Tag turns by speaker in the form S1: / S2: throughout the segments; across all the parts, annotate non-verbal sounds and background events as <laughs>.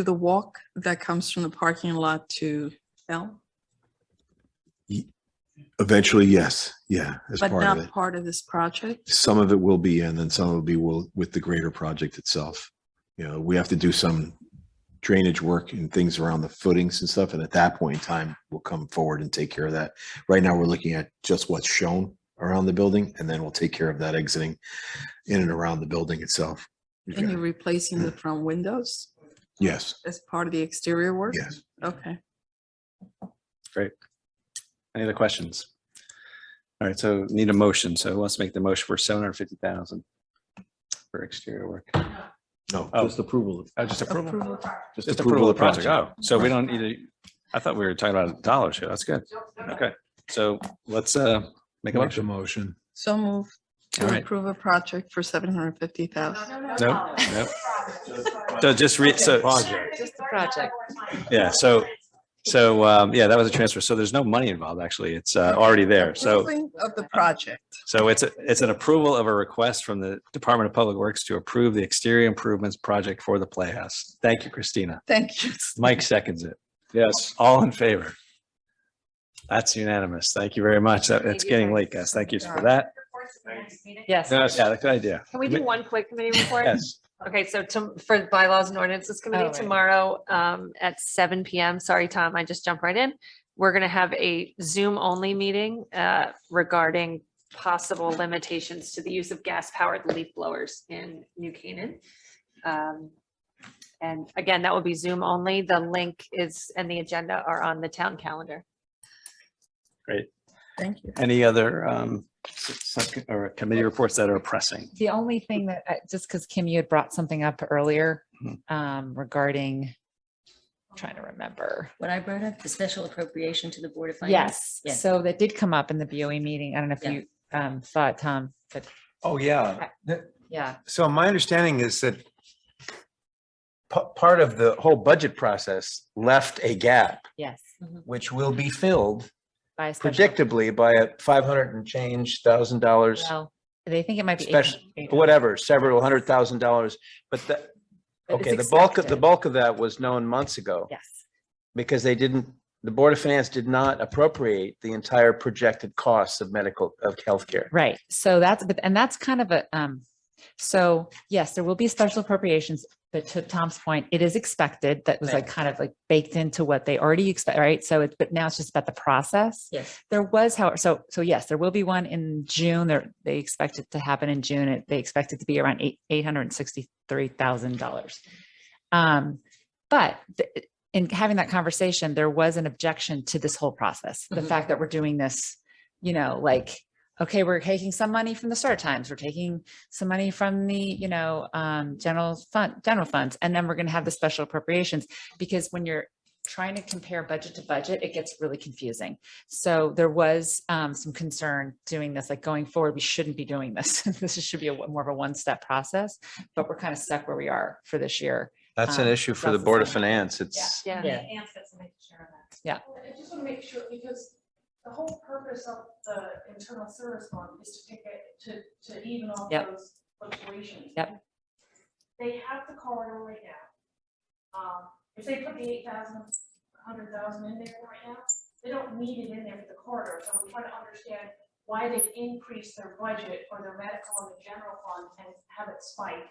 S1: to the walk that comes from the parking lot to L,
S2: Eventually, yes, yeah, as
S1: but
S2: part of
S1: not
S2: it.
S1: part of this project?
S2: Some of it will be, and then some will be will, with the greater project itself. You know, we have to do some drainage work and things around the footings and stuff, and at that point in time, we'll come forward and take care of that. Right now, we're looking at just what's shown around the building, and then we'll take care of that exiting in and around the building itself. You
S1: And
S2: got
S1: you're
S2: it.
S1: replacing
S2: Mm.
S1: the front windows
S2: Yes,
S1: as part of the exterior work?
S2: yes.
S1: Okay.
S3: Great. Any other questions? All right, so need a motion. So let's make the motion for seven hundred fifty thousand for exterior work.
S2: No,
S3: Oh.
S2: just approval.
S3: Oh, just approval.
S1: Approval.
S3: Just approval of the project. Oh, so we don't need to, I thought we were talking about dollars here. That's good. Okay, so let's uh make a motion.
S2: motion.
S1: So move
S3: All
S1: to
S3: right.
S1: approve a project for seven hundred fifty thousand.
S3: No, no. So just read, so,
S4: Just the project.
S3: Yeah, so- so, um, yeah, that was a transfer. So there's no money involved, actually. It's uh already there. So.
S1: Of the project.
S3: So it's, a- it's an approval of a request from the Department of Public Works to approve the exterior improvements project for the Playhouse. Thank you, Christina.
S1: Thank you.
S3: Mike seconds it. Yes. All in favor? That's unanimous. Thank you very much. That- It's getting late, guys. Thank you for that.
S4: Yes.
S3: Yeah, that's a good idea.
S5: Can we do one quick committee report?
S3: Yes.
S5: Okay, so to, for bylaws and ordinances
S4: Oh,
S5: committee
S4: right.
S5: tomorrow, um, at seven PM, sorry, Tom, I just jumped right in. We're gonna have a Zoom only meeting, uh, regarding possible limitations to the use of gas powered leaf blowers in New Canaan. Um, and again, that will be Zoom only. The link is, and the agenda are on the town calendar.
S1: Thank you.
S3: Any other um sub- or committee reports that are pressing?
S4: The only thing that, I- just because Kim, you had brought something up earlier
S3: Mhm.
S6: Mm-hmm.
S4: um, regarding, I'm trying to remember.
S7: What I brought up, the special appropriation to the Board of Finance.
S4: Yes,
S7: Yes.
S4: so that did come up in the BOE meeting. I don't know if
S7: Yeah.
S4: you um, saw it, Tom, but
S6: Oh, yeah. Th-
S4: yeah.
S6: So my understanding is that pa- part of the whole budget process left a gap,
S4: Yes.
S6: which will be filled
S4: by a special-
S6: predictably by a five hundred and change thousand dollars,
S4: Well, They think it might be.
S6: Special-
S4: 800.
S6: whatever, several hundred thousand dollars. But the,
S4: But it's
S6: okay, the bulk, of the
S4: expected.
S6: bulk of that was known months ago
S4: Yes,
S6: because they didn't, the Board of Finance did not appropriate the entire projected costs of medical, of healthcare.
S4: right. So that's, but, and that's kind of a, um, so yes, there will be special appropriations, but to Tom's point, it is expected. That was like kind of like baked into what they already expect, right? So it's, but now it's just about the process.
S7: Yes.
S4: There was, however, so, so yes, there will be one in June. There, they expect it to happen in June. It- They expect it to be around eight, eight hundred and sixty-three thousand dollars. Um, but th- in having that conversation, there was an objection to this whole process. The
S7: Mhm.
S4: fact that we're doing this, you know, like, okay, we're taking some money from the start times, we're taking some money from the, you know, um, general fund, general funds, and then we're gonna have the special appropriations. Because when you're trying to compare budget to budget, it gets really confusing. So there was um, some concern doing this, like going forward, we shouldn't be doing this. <laughs> This should be a, more of a one-step process, but we're kind of stuck where we are for this year.
S6: That's an
S4: Um,
S6: issue for the
S4: that's the
S6: Board of
S4: same.
S6: Finance. It's,
S5: Yeah.
S7: Yeah.
S8: I just want to make sure, because the whole purpose of the internal service fund is to take it, to, to even off
S4: Yep.
S8: those fluctuations.
S4: Yep.
S8: They have the corridor right now. Um, if they put the eight thousand, hundred thousand in there right now, they don't need it in there for the corridor, so I'm trying to understand why they've increased their budget for their medical and the general fund and have it spike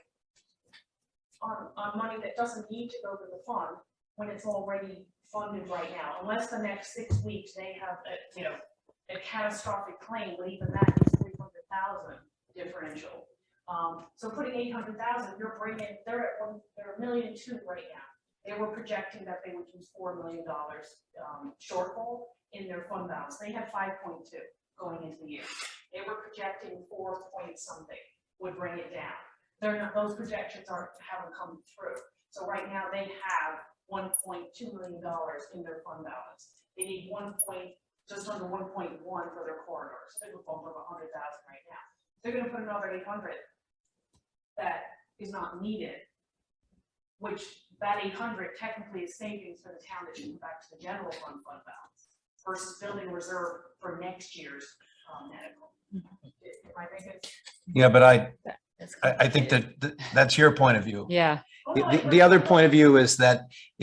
S8: on, on money that doesn't need to go to the fund when it's already funded right now, unless the next six weeks they have a, you know, a catastrophic claim, but even that is three hundred thousand differential. Um, so putting eight hundred thousand, you're bringing, they're at one, they're a million two right now. They were projecting that they would use four million dollars, um, shortfall in their fund balance. They had five point two going into the year. They were projecting four point something would bring it down. They're not, those projections aren't, haven't come through. So right now they have one point two million dollars in their fund balance. They need one point, just under one point one for their corridors, they would bump up a hundred thousand right now. They're gonna put another eight hundred that is not needed, which that eight hundred technically is savings for the town that should go back to the general fund fund balance versus building a reserve
S6: Mm-hmm.
S8: for next year's um, medical. Am I making?
S6: yeah, but I,
S7: That's
S6: I, I think
S7: complicated.
S6: that, that- that's your point of view.
S4: Yeah.
S8: Oh,
S6: The,
S8: no, I
S6: the- the other
S8: heard-
S6: point of view is that